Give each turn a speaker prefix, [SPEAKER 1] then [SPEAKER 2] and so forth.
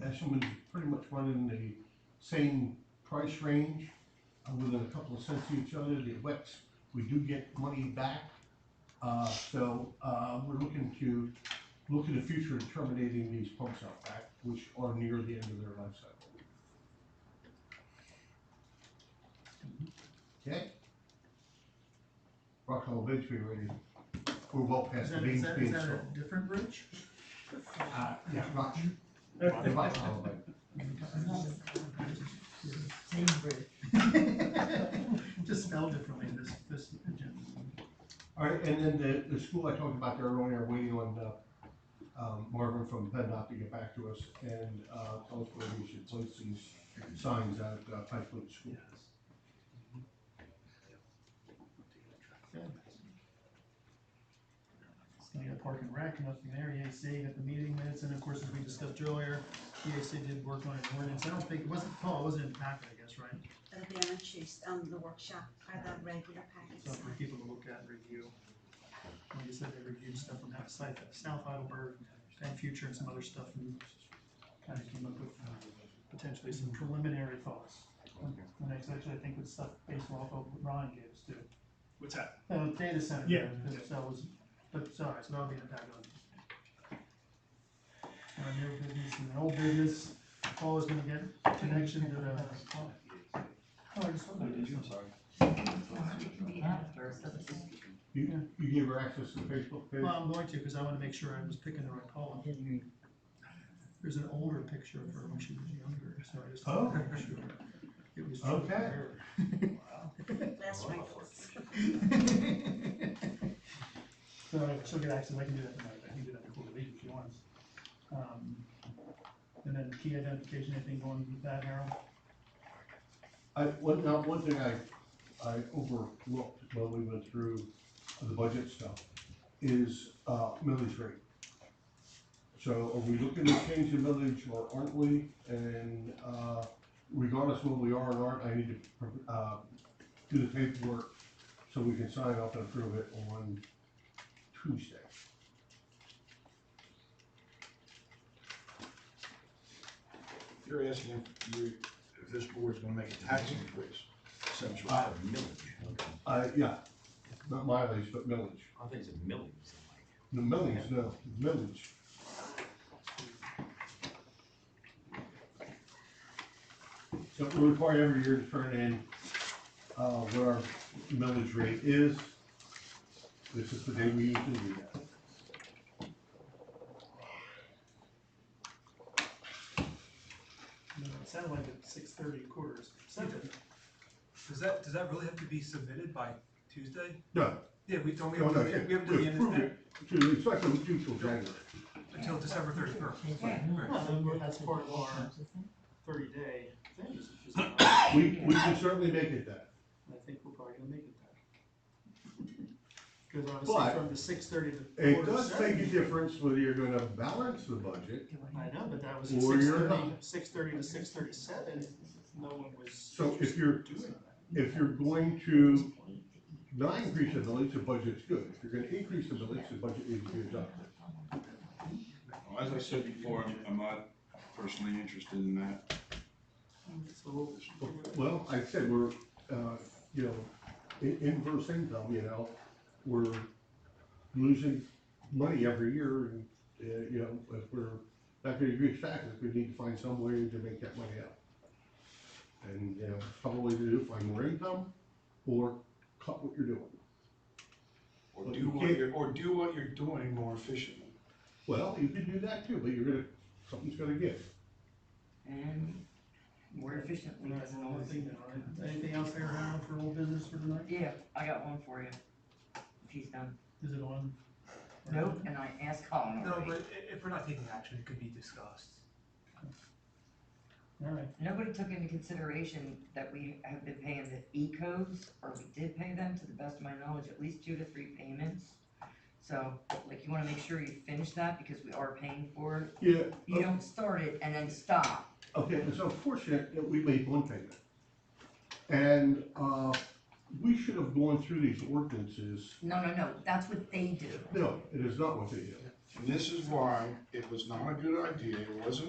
[SPEAKER 1] fashion, but it's pretty much running the same price range, uh, within a couple of cents of each other, the WEX, we do get money back. Uh, so, uh, we're looking to, look to the future in terminating these pumps out back, which are near the end of their life cycle. Okay? Rockwell bids we already, we're well past
[SPEAKER 2] Is
[SPEAKER 1] the
[SPEAKER 2] that, is
[SPEAKER 1] beans
[SPEAKER 2] that, is
[SPEAKER 1] being
[SPEAKER 2] that a
[SPEAKER 1] sold.
[SPEAKER 2] different bridge?
[SPEAKER 1] Uh, yeah, Rock, the Rockwell bid.
[SPEAKER 2] Same bridge. Just spelled differently this, this agenda.
[SPEAKER 1] All right, and then the, the school I talked about there earlier, waiting on, uh, um, Marvin from PennDOT to get back to us and, uh, tell us where we should place these signs at, uh, Pike Village School.
[SPEAKER 2] It's gonna get a park and rec, nothing there, E EAC got the meeting minutes, and of course, as we discussed earlier, EAC did work on an ordinance, I don't think, it wasn't, Paul, it wasn't in the packet, I guess, right?
[SPEAKER 3] It'll be on a Tuesday, on um, the workshop, are the regular
[SPEAKER 2] So
[SPEAKER 3] packets.
[SPEAKER 2] for people to look at and review. Like I said, they reviewed stuff from that site, that South Heidelberg, and future and some other stuff, and kind of came up with uh, potentially some preliminary thoughts. And that's actually, I think, with stuff based off of what Ron gave us too.
[SPEAKER 4] What's that?
[SPEAKER 2] Uh, data center.
[SPEAKER 4] Yeah.
[SPEAKER 2] Because that was, but, sorry, so that'll be in the packet on. Our new business and the old business, Paul is gonna get connection to the. Oh, I just saw that.
[SPEAKER 1] You, you gave her access to the Facebook page?
[SPEAKER 2] Well, I'm going to, because I want to make sure I was picking the right column. There's an older picture of her when she was younger, so I just. wanted to make sure It was.
[SPEAKER 1] Okay.
[SPEAKER 3] Last wrinkles.
[SPEAKER 2] So she'll get access, I can do that tonight, I can do that before we leave if she wants. Um, And then key identification, anything going with that, Harold?
[SPEAKER 1] I, one, now, one thing I, I overlooked when we went through the budget stuff is, uh, millage rate. So are we looking to change the millage or aren't we? And, uh, regardless of what we are or aren't, I need to, uh, do the paperwork so we can sign off and approve it on Tuesday.
[SPEAKER 5] You're asking if you, if this board's gonna make a tax increase, since you
[SPEAKER 1] Uh,
[SPEAKER 5] have millage.
[SPEAKER 1] Uh, yeah, not mileage, but millage.
[SPEAKER 6] I think it's a million, something like that.
[SPEAKER 1] The millage, no, millage. So we're required every year to turn in, uh, what our millage rate is. This is the day we usually do that.
[SPEAKER 2] No, It sounded like at six thirty quarters, seven.
[SPEAKER 4] Does that, does that really have to be submitted by Tuesday?
[SPEAKER 1] No,
[SPEAKER 4] Yeah, we don't, we
[SPEAKER 1] No,
[SPEAKER 4] have,
[SPEAKER 1] no,
[SPEAKER 4] we have
[SPEAKER 1] yeah,
[SPEAKER 4] to the end of
[SPEAKER 1] approve
[SPEAKER 4] the,
[SPEAKER 1] it. to, it's like the usual January.
[SPEAKER 4] until December thirty-first.
[SPEAKER 2] Well, That's part of our thirty day thing, is just-
[SPEAKER 1] We, we can certainly make it that.
[SPEAKER 2] I think we're probably gonna make it there. Cause obviously
[SPEAKER 1] But-
[SPEAKER 2] from the six thirty to
[SPEAKER 1] It
[SPEAKER 2] quarter to
[SPEAKER 1] does
[SPEAKER 2] seven.
[SPEAKER 1] make a difference whether you're gonna balance the budget.
[SPEAKER 2] I know, but that was
[SPEAKER 1] Or
[SPEAKER 2] six thirty.
[SPEAKER 1] you're not.
[SPEAKER 2] Six thirty to six thirty-seven, no one was.
[SPEAKER 1] So if you're, if you're going to not increase the millage, the budget's good. If you're gonna increase the millage, the budget needs to be adjusted.
[SPEAKER 7] Well, As I said before, I'm- I'm not personally interested in that.
[SPEAKER 2] So,
[SPEAKER 1] Well, I said, we're, uh, you know, in, inverse income, you know, we're losing money every year and, uh, you know, if we're not gonna reach taxes, we need to find some way to make that money up. And, you know, probably to do, find more income or cut what you're doing.
[SPEAKER 5] Or do what you're, or do what you're doing more efficiently.
[SPEAKER 1] Well, you can do that too, but you're gonna, something's gonna give.
[SPEAKER 8] And more efficiently
[SPEAKER 2] that's
[SPEAKER 8] doesn't
[SPEAKER 2] another
[SPEAKER 8] always.
[SPEAKER 2] thing now, right? Anything else there around for old business for tonight?
[SPEAKER 8] Yeah, I got one for you, if he's done.
[SPEAKER 2] Is it on?
[SPEAKER 8] Nope, and I asked Colin
[SPEAKER 4] No,
[SPEAKER 8] already.
[SPEAKER 4] but i- if we're not taking action, it could be discussed.
[SPEAKER 2] Alright,
[SPEAKER 8] Nobody took into consideration that we have been paying the E-codes, or we did pay them, to the best of my knowledge, at least two to three payments. So, like, you wanna make sure you finish that, because we are paying for it.
[SPEAKER 1] Yeah,
[SPEAKER 8] You don't start it and then stop.
[SPEAKER 1] Okay, it's unfortunate that we made one payment. And, uh, we should have gone through these ordinances.
[SPEAKER 8] No, no, no, that's what they do.
[SPEAKER 1] No, it is not what they did.
[SPEAKER 5] And this is why it was not a good idea, it wasn't